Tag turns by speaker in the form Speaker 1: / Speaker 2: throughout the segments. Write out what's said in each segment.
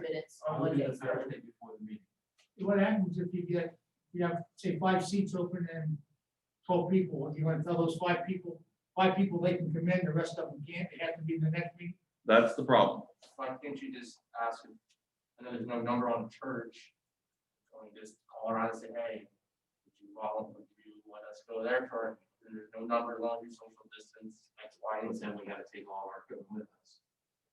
Speaker 1: minutes on
Speaker 2: I'll do
Speaker 1: Monday.
Speaker 2: it Thursday before the meeting.
Speaker 3: What happens if you get, you have, say, five seats open and twelve people, What do you want to tell those five people, five people they can come in, the rest of them can't, it has to be the next meeting?
Speaker 4: That's the problem.
Speaker 2: Why can't you just ask, if- I know there's no number on the church. Or you just call around and say, hey, would you all, would you let us go there for, and there's no number, long, your social distance, X, Y, and Z, we gotta take all our equipment with us.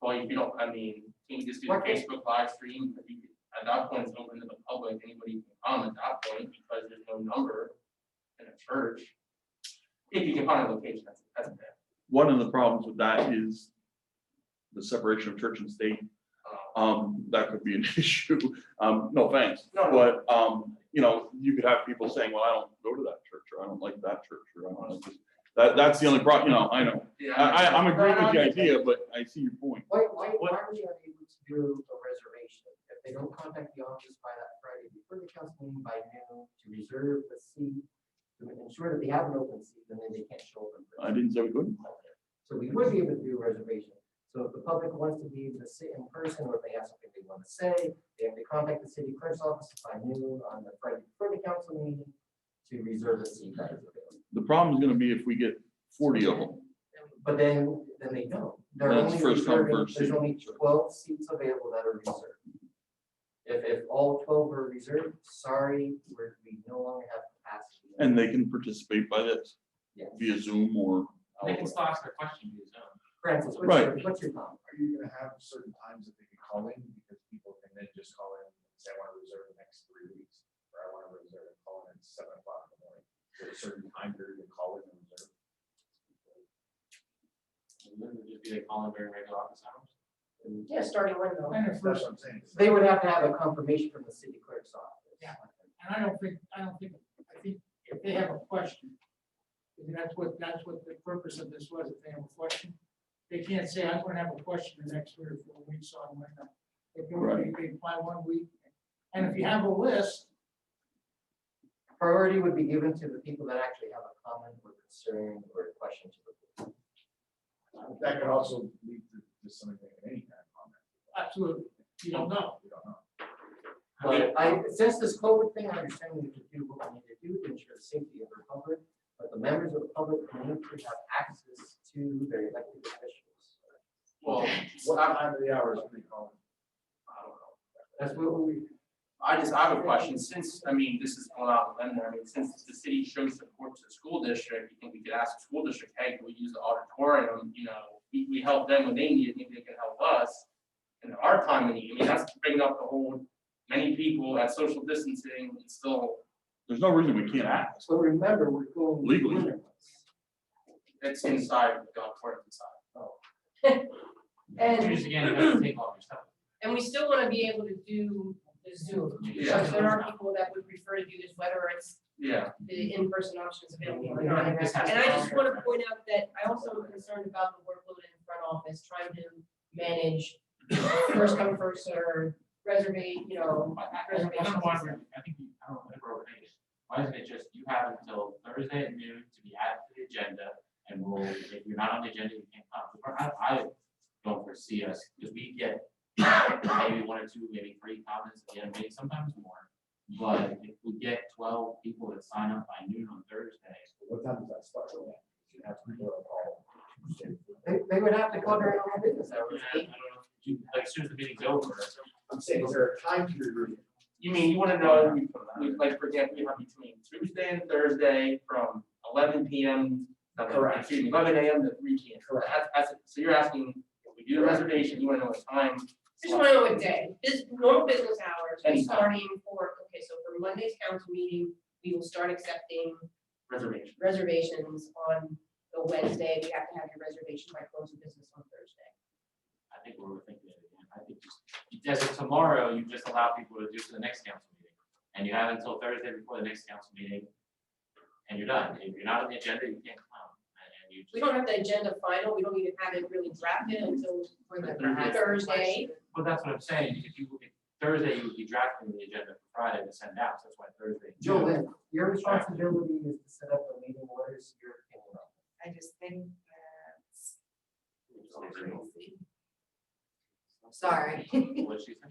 Speaker 2: Well, if you don't, I mean, can you just do the
Speaker 1: Okay.
Speaker 2: Facebook live stream, If you could- at that point, it's open to the public, anybody can come at that point, because there's no number in a church. If you can find a location, that's, that's bad.
Speaker 4: One of the problems with that is the separation of church and state.
Speaker 2: Uh,
Speaker 4: Um, that could be an issue. Um, no thanks.
Speaker 2: No,
Speaker 4: But, um, you know, you could have people saying, well, I don't go to that church, or I don't like that church, or I don't like this. That, that's the only problem, you know, I know.
Speaker 2: yeah,
Speaker 4: I, I, I'm agreeing with the idea, but I see your point.
Speaker 5: Why, why, why are we unable to do a reservation? If they don't contact the office by that Friday before the council meeting by noon to reserve the seat, to ensure that they have an open seat, and then they can't show up. in
Speaker 4: I
Speaker 5: person.
Speaker 4: didn't say we couldn't.
Speaker 5: So we would be able to do a reservation. So if the public wants to be able to sit in person, or if they have something they want to say, they have to contact the city clerk's office by noon on the Friday before the council meeting to reserve a seat that is available.
Speaker 4: The problem is gonna be if we get forty of them.
Speaker 5: But then, then they don't. They're
Speaker 4: That's
Speaker 5: only
Speaker 4: first come,
Speaker 5: reserving-
Speaker 4: first
Speaker 5: There's
Speaker 4: served.
Speaker 5: only twelve seats available that are reserved. If, if all twelve are reserved, sorry, we're, we no longer have capacity.
Speaker 4: And they can participate by this
Speaker 5: Yes.
Speaker 4: via Zoom or.
Speaker 2: They can still ask their question, you know.
Speaker 5: Francis, what's your,
Speaker 4: Right.
Speaker 5: what's your thought?
Speaker 6: Are you gonna have certain times that they can call in, because people can then just call in, and say, I wanna reserve the next three weeks, or I wanna reserve and call in at seven o'clock in the morning, Is there a certain time period to call in and reserve.
Speaker 2: And then it'd just be like calling during regular office hours.
Speaker 1: Yeah, starting Monday.
Speaker 3: And at
Speaker 6: That's
Speaker 3: first,
Speaker 6: what I'm saying.
Speaker 5: They would have to have a confirmation from the city clerk's office.
Speaker 3: Yeah. and I don't think, I don't think, I think if they have a question, and that's what, that's what the purpose of this was, if they have a question, they can't say, I'm gonna have a question the next three or four weeks, so I'm gonna, if
Speaker 4: Right.
Speaker 3: they apply one week, and if you have a list,
Speaker 5: Priority would be given to the people that actually have a comment or concern or question to the board.
Speaker 6: That could also lead to, to something like any kind of comment,
Speaker 3: absolutely, you don't know.
Speaker 6: we don't know.
Speaker 5: But I, since this COVID thing, I understand we need to do what we need to do to ensure the safety of the public, but the members of the public need to have access to their elected officials.
Speaker 2: Well,
Speaker 6: What time of the hour is pretty common.
Speaker 2: I don't know.
Speaker 5: That's what we,
Speaker 2: I just, I have a question, since, I mean, this is going out and then, I mean, since the city shows support to the school district, you think we could ask the school district, hey, can we use the auditorium, you know? We, we help them when they need it, maybe they can help us in our time of need, I mean, that's bringing up the whole, many people at social distancing, and still,
Speaker 4: There's no reason we can't ask.
Speaker 5: so remember, we're going.
Speaker 4: Legally.
Speaker 5: winter months.
Speaker 2: it's inside, the auditorium inside.
Speaker 1: And,
Speaker 2: again, you have to take all your stuff.
Speaker 1: and we still wanna be able to do the Zoom.
Speaker 2: Yeah.
Speaker 1: Because there are people that would prefer to do this, whether it's
Speaker 2: Yeah,
Speaker 1: the in-person options available or
Speaker 2: Yeah, I
Speaker 1: not.
Speaker 2: think this has to
Speaker 1: And I
Speaker 2: be
Speaker 1: just
Speaker 2: fair.
Speaker 1: want to point out that I also am concerned about the workload in the front office, trying to manage first come, first served, reservation, you know,
Speaker 2: I don't know why
Speaker 1: reservations.
Speaker 2: we're, I think, you- I don't know, whatever organization, why isn't it just, you have until Thursday at noon to be added to the agenda, and we'll, if you're not on the agenda, you can't come. Or I, I don't foresee us, because we get maybe one or two, maybe three comments at the end, maybe sometimes more. But if we get twelve people that sign up by noon on Thursday,
Speaker 6: What time does that start? You have people that call.
Speaker 5: They, they would have to go during normal business
Speaker 2: I
Speaker 5: hours.
Speaker 2: don't know, you- like, as soon as the meeting's over.
Speaker 6: I'm saying, is there a time period?
Speaker 2: You mean, you wanna know, we, like, for example, we have between Tuesday and Thursday from eleven PM. uh,
Speaker 6: Correct.
Speaker 2: Excuse me, eleven AM to three PM.
Speaker 6: Correct.
Speaker 2: That's, that's, so you're asking, if we do a reservation, you wanna know what time?
Speaker 1: Just want to know what day, this, normal business hours, we're
Speaker 2: Anytime.
Speaker 1: starting for, okay, so for Monday's council meeting, we will start accepting
Speaker 2: Reservation.
Speaker 1: reservations on the Wednesday. We have to have your reservation by close of business on Thursday.
Speaker 2: I think we're thinking it again. I think just, you does it tomorrow, you just allow people to do it to the next council meeting. And you have until Thursday before the next council meeting. And you're done. If you're not on the agenda, you can't come. And- And you.
Speaker 1: We don't have the agenda final, we don't even have it really drafted until for the Thursday.
Speaker 2: Well, that's what I'm saying. If you, if Thursday, you would be drafting the agenda for Friday to send out, so that's why Thursday.
Speaker 5: Joe, your responsibility is to set up the meeting orders, your opinion on.
Speaker 7: I just think that's
Speaker 2: What
Speaker 7: Sorry.
Speaker 2: she said?